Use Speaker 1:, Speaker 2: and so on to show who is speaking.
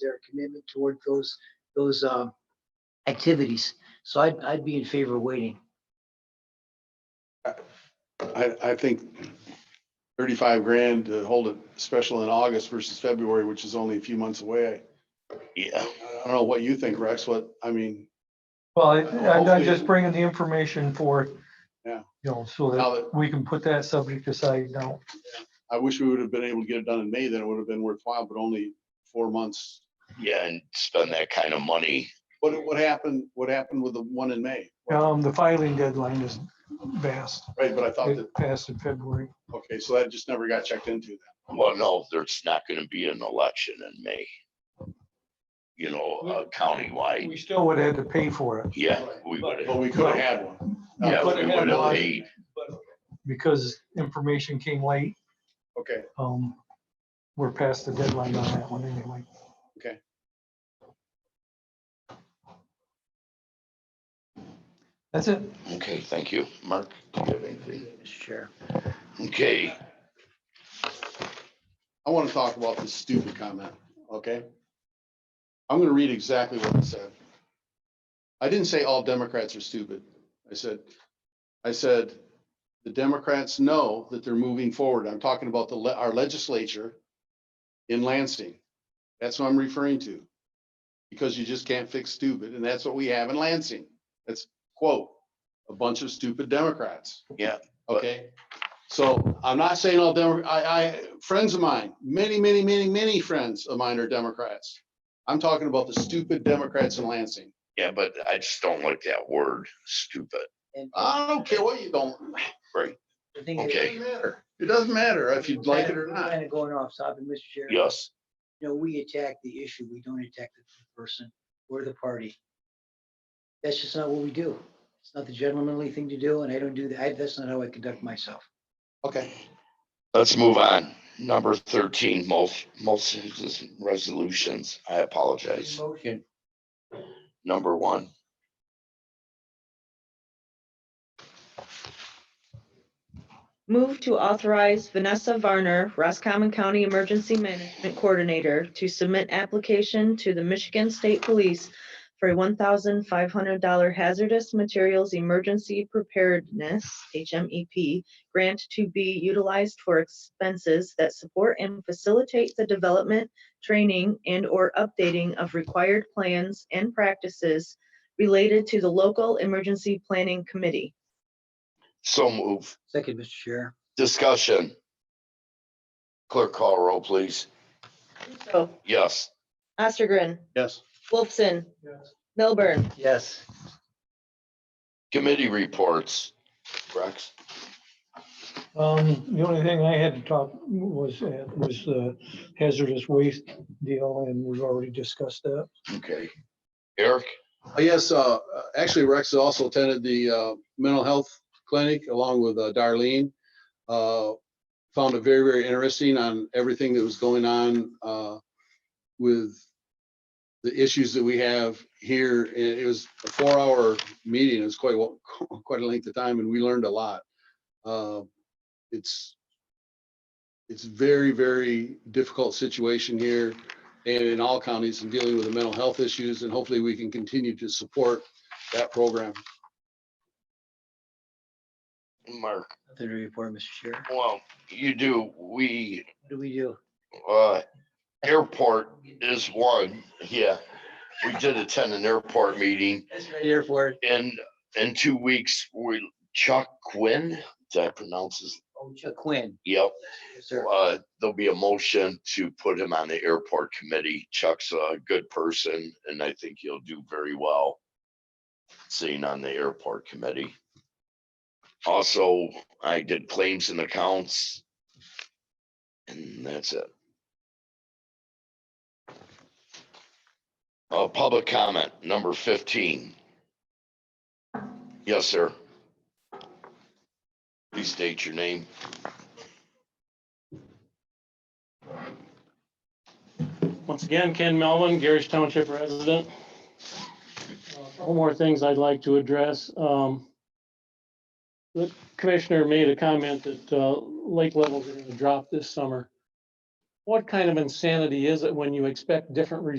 Speaker 1: their commitment toward those, those, um, activities. So I'd, I'd be in favor of waiting.
Speaker 2: I, I think thirty-five grand to hold it special in August versus February, which is only a few months away.
Speaker 3: Yeah.
Speaker 2: I don't know what you think, Rex, what, I mean,
Speaker 4: Well, I- I'm I'm
Speaker 2: Hopefully-
Speaker 4: just bringing the information for.
Speaker 2: Yeah.
Speaker 4: You know, so
Speaker 2: now
Speaker 4: that
Speaker 2: that,
Speaker 4: we can put that subject aside now.
Speaker 2: I wish we would have been able to get it done in May, then it would have been worthwhile, but only four months.
Speaker 3: Yeah, and spend that kind of money.
Speaker 2: What, what happened, what happened with the one in May?
Speaker 4: Um, the filing deadline is vast.
Speaker 2: Right, but I thought that,
Speaker 4: It passed in February.
Speaker 2: okay, so that just never got checked into then.
Speaker 3: Well, no, there's not gonna be an election in May. You know, uh, countywide,
Speaker 4: We still would have had to pay for it
Speaker 3: yeah, we would
Speaker 2: But
Speaker 3: have,
Speaker 2: we could have had one.
Speaker 3: yeah,
Speaker 4: but
Speaker 3: we
Speaker 4: it had
Speaker 3: would have
Speaker 4: one.
Speaker 3: paid.
Speaker 4: because information came late.
Speaker 2: Okay,
Speaker 4: Um, we're past the deadline on that one anyway. That's it.
Speaker 3: Okay, thank you. Mark, do you have anything?
Speaker 1: Mr. Chair.
Speaker 3: Okay,
Speaker 2: I want to talk about this stupid comment, okay? I'm gonna read exactly what it said. I didn't say all Democrats are stupid. I said, I said, the Democrats know that they're moving forward. I'm talking about the, le- our legislature in Lansing. That's what I'm referring to. Because you just can't fix stupid, and that's what we have in Lansing. That's quote, a bunch of stupid Democrats.
Speaker 3: Yeah, but-
Speaker 2: Okay, so I'm not saying all Demo, I, I, friends of mine, many, many, many, many friends of mine are Democrats. I'm talking about the stupid Democrats in Lansing.
Speaker 3: yeah, but I just don't like that word, stupid.
Speaker 1: And
Speaker 2: I don't care what you don't,
Speaker 1: the thing is-
Speaker 2: it
Speaker 3: okay.
Speaker 2: doesn't matter. It doesn't matter if you like it or not.
Speaker 1: Kind of going off topic, Mr. Chair.
Speaker 3: Yes,
Speaker 1: You know, we attack the issue. We don't attack the person or the party. That's just not what we do. It's not the gentlemanly thing to do, and I don't do that. I- That's not how I conduct myself.
Speaker 2: Okay,
Speaker 3: let's move on. Number thirteen, most, most resolutions. I apologize.
Speaker 1: Motion.
Speaker 3: Number one,
Speaker 5: Move to authorize Vanessa Varner, Roscommon County Emergency Management Coordinator, to submit application to the Michigan State Police for a one thousand five hundred dollar hazardous materials emergency preparedness, HMEP, grant to be utilized for expenses that support and facilitate the development, training, and/or updating of required plans and practices related to the local emergency planning committee.
Speaker 3: so move.
Speaker 1: Second, Mr. Chair.
Speaker 3: Discussion. Clerk call roll, please.
Speaker 5: So,
Speaker 3: Yes,
Speaker 5: Ostergren,
Speaker 2: yes.
Speaker 5: Wolfson,
Speaker 4: Yes.
Speaker 5: Milburn,
Speaker 1: Yes.
Speaker 3: committee reports. Rex,
Speaker 4: Um, the only thing I had to talk was, was the hazardous waste deal, and we've already discussed that.
Speaker 3: okay. Eric,
Speaker 2: Uh, Yes, uh, uh, actually Rex also attended the, uh, mental health clinic along with uh, Darlene. Uh, Found it very, very interesting on everything that was going on, uh, with the issues that we have here. It, it was a four-hour meeting. It was quite, wa- quite a length of time and we learned a lot. Uh, It's, it's very, very difficult situation here and in all counties and dealing with the mental health issues, and hopefully we can continue to support that program.
Speaker 3: Mark,
Speaker 1: Nothing to report, Mr. Chair. What
Speaker 3: well, you do, we,
Speaker 1: do we do?
Speaker 3: uh, airport is one, yeah. We did attend an airport meeting
Speaker 1: That's right. Airport.
Speaker 3: and in two weeks, we, Chuck Quinn, did I pronounce his?
Speaker 1: Oh, Chuck Quinn.
Speaker 3: Yep,
Speaker 1: Yes, sir.
Speaker 3: uh, there'll be a motion to put him on the airport committee. Chuck's a good person and I think he'll do very well sitting on the airport committee. Also, I did claims and accounts. And that's it. Uh, public comment, number fifteen. Yes, sir. Please state your name.
Speaker 6: Once again, Ken Melvin, Garrish Township resident. Uh, A Couple more things I'd like to address. Um, The commissioner made a comment that uh, lake levels are going to drop this summer. What kind of insanity is it when you expect different results